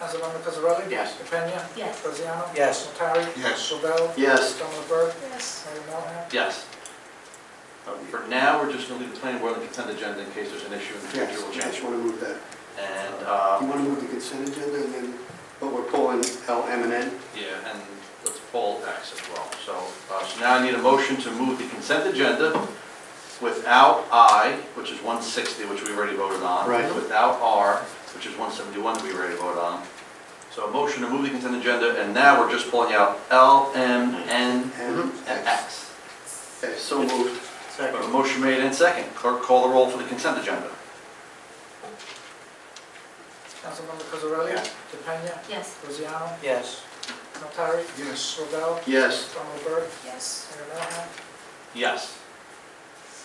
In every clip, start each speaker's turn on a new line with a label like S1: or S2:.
S1: Councilmember Cosarelli?
S2: Yes.
S1: DePena?
S3: Yes.
S1: Graziano?
S4: Yes.
S1: Notari?
S5: Yes.
S1: Robel?
S2: Yes.
S1: Stoneman Burke?
S3: Yes.
S1: Mayor Melham?
S2: Yes. Um, For now, we're just going to leave the planning board on the consent agenda in case there's an issue in the
S5: Yes,
S2: future, we'll
S5: I
S2: change
S5: just
S2: it.
S5: want to move that.
S2: And,
S5: You
S2: uh,
S5: want to move the consent agenda and then, but we're pulling L, M, and N?
S2: yeah, and let's pull X as well. So, uh, so now I need a motion to move the consent agenda without I, which is 160, which we already voted on.
S5: Right.
S2: Without R, which is 171, we already voted on. So a motion to move the consent agenda, and now we're just pulling out L, M, N,
S5: And
S2: and
S5: X.
S2: X.
S5: Okay, so moved.
S2: But a motion made and second. Clerk, call the roll for the consent agenda.
S1: Councilmember Cosarelli?
S2: Yes.
S1: DePena?
S3: Yes.
S1: Graziano?
S4: Yes.
S1: Notari?
S5: Yes.
S1: Robel?
S5: Yes.
S1: Stoneman Burke?
S3: Yes.
S1: Mayor Melham?
S2: Yes.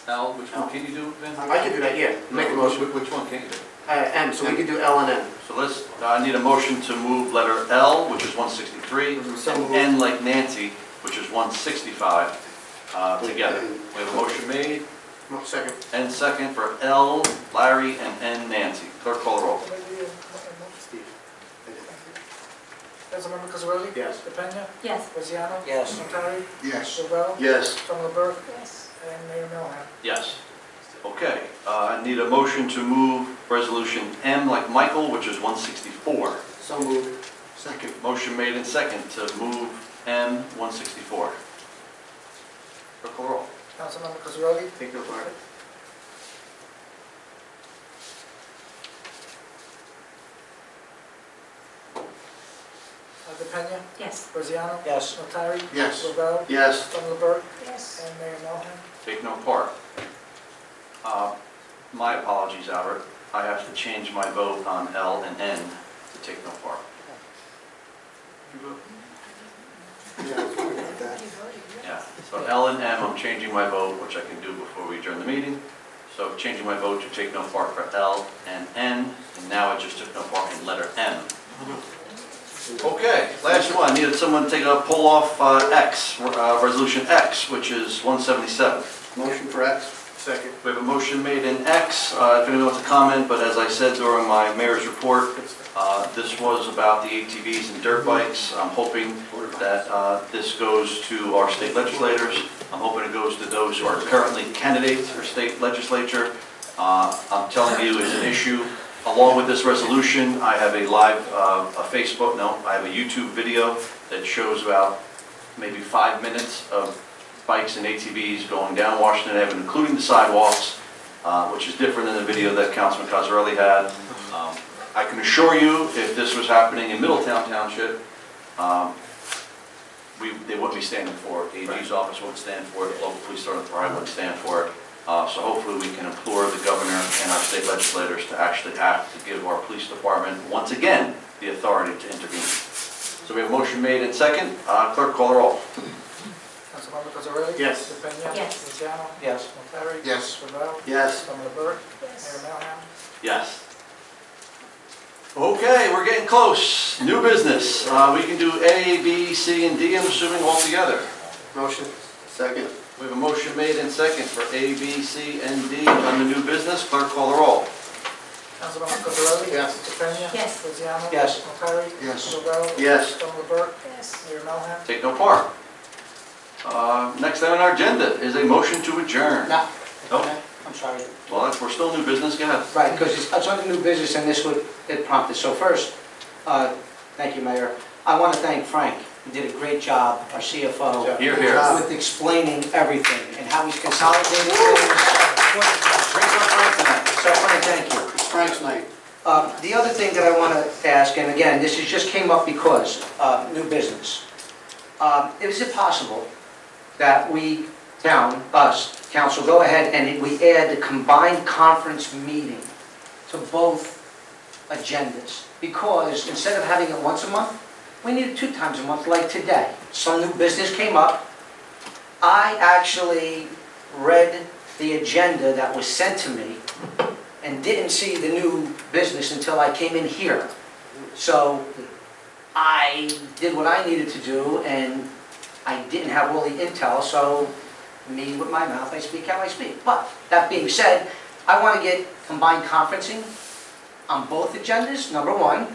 S2: Al, which one can you do, Vin?
S6: I can do that, yeah, make a motion.
S2: Which one can you do?
S6: Uh, M, so we can do L and M.
S2: So let's, I need a motion to move letter L, which is 163,
S5: So
S2: and
S5: moved.
S2: N like Nancy, which is 165, uh, together. We have a motion made
S6: No, second.
S2: and second for L, Larry, and N, Nancy. Clerk, call the roll.
S6: Steve.
S1: Councilmember Cosarelli?
S6: Yes.
S1: DePena?
S3: Yes.
S1: Graziano?
S4: Yes.
S1: Notari?
S5: Yes.
S1: Robel?
S6: Yes.
S1: Stoneman Burke?
S3: Yes.
S1: And Mayor Melham?
S2: Yes. Okay, uh, I need a motion to move resolution M like Michael, which is 164.
S6: So moved.
S5: Second.
S2: Motion made and second to move M 164. Clerk, call the roll.
S1: Councilmember Cosarelli?
S6: Take no part.
S1: Uh, DePena?
S3: Yes.
S1: Graziano?
S4: Yes.
S1: Notari?
S5: Yes.
S1: Robel?
S6: Yes.
S1: Stoneman Burke?
S3: Yes.
S1: And Mayor Melham?
S2: Take no part. Uh, My apologies, Albert. I have to change my vote on L and N to take no part.
S5: Yeah, I was wondering about that.
S2: Yeah, so L and M, I'm changing my vote, which I can do before we adjourn the meeting. So changing my vote to take no part for L and N, and now I just took no part in letter M. Okay, last one, needed someone to take a pull off uh, X, uh, resolution X, which is 177.
S5: Motion for X?
S6: Second.
S2: We have a motion made in X, uh, if anyone wants to comment, but as I said during my mayor's report, uh, this was about the ATVs and dirt bikes. I'm hoping that uh, this goes to our state legislators. I'm hoping it goes to those who are currently candidates for state legislature. Uh, I'm telling you, it's an issue. Along with this resolution, I have a live, uh, a Facebook, no, I have a YouTube video that shows about maybe five minutes of bikes and ATVs going down Washington Avenue, including the sidewalks, uh, which is different than the video that Councilman Cosarelli had. Um, I can assure you, if this was happening in Middletown Township, um, we, they wouldn't be standing for it. The AG's office wouldn't stand for it, the local police department probably wouldn't stand for it. Uh, So hopefully, we can implore the governor and our state legislators to actually act to give our police department, once again, the authority to intervene. So we have a motion made and second. Uh, Clerk, call the roll.
S1: Councilmember Cosarelli?
S6: Yes.
S1: DePena?
S3: Yes.
S1: Graziano?
S4: Yes.
S1: Notari?
S5: Yes.
S1: Robel?
S6: Yes.
S1: Stoneman Burke? Mayor
S3: Yes.
S1: Melham?
S2: Yes. Okay, we're getting close. New business. Uh, we can do A, B, C, and D, I'm assuming all together.
S6: Motion. Second.
S2: We have a motion made and second for A, B, C, and D on the new business. Clerk, call the roll.
S1: Councilmember Cosarelli?
S6: Yes.
S1: DePena?
S3: Yes.
S1: Graziano?
S4: Yes.
S1: Notari?
S5: Yes.
S1: Robel?
S6: Yes.
S1: Stoneman Burke?
S3: Yes.
S1: Mayor Melham?
S2: Take no part. Uh, next item on our agenda is a motion to adjourn.
S4: No.
S2: Nope.
S4: I'm sorry.
S2: Well, that's- we're still new business, go ahead.
S4: Right, because it's it's under new business and this would, it prompted. So first, uh, thank you, Mayor. I want to thank Frank. He did a great job, our CFO.
S2: Here, here.
S4: uh, with explaining everything and how he's consolidated things.
S2: Drinks on Frank tonight.
S4: So Frank, thank you.
S5: It's Frank's night.
S4: Uh, The other thing that I want to ask, and again, this is just came up because, uh, new business. Um, Is it possible that we, town, us, council, go ahead and we add the combined conference meeting to both agendas? Because instead of having it once a month, we need it two times a month, like today. Some new business came up. I actually read the agenda that was sent to me and didn't see the new business until I came in here. So I did what I needed to do, and I didn't have all the intel, so me with my mouth, I speak how I speak. But that being said, I want to get combined conferencing on both agendas, number one.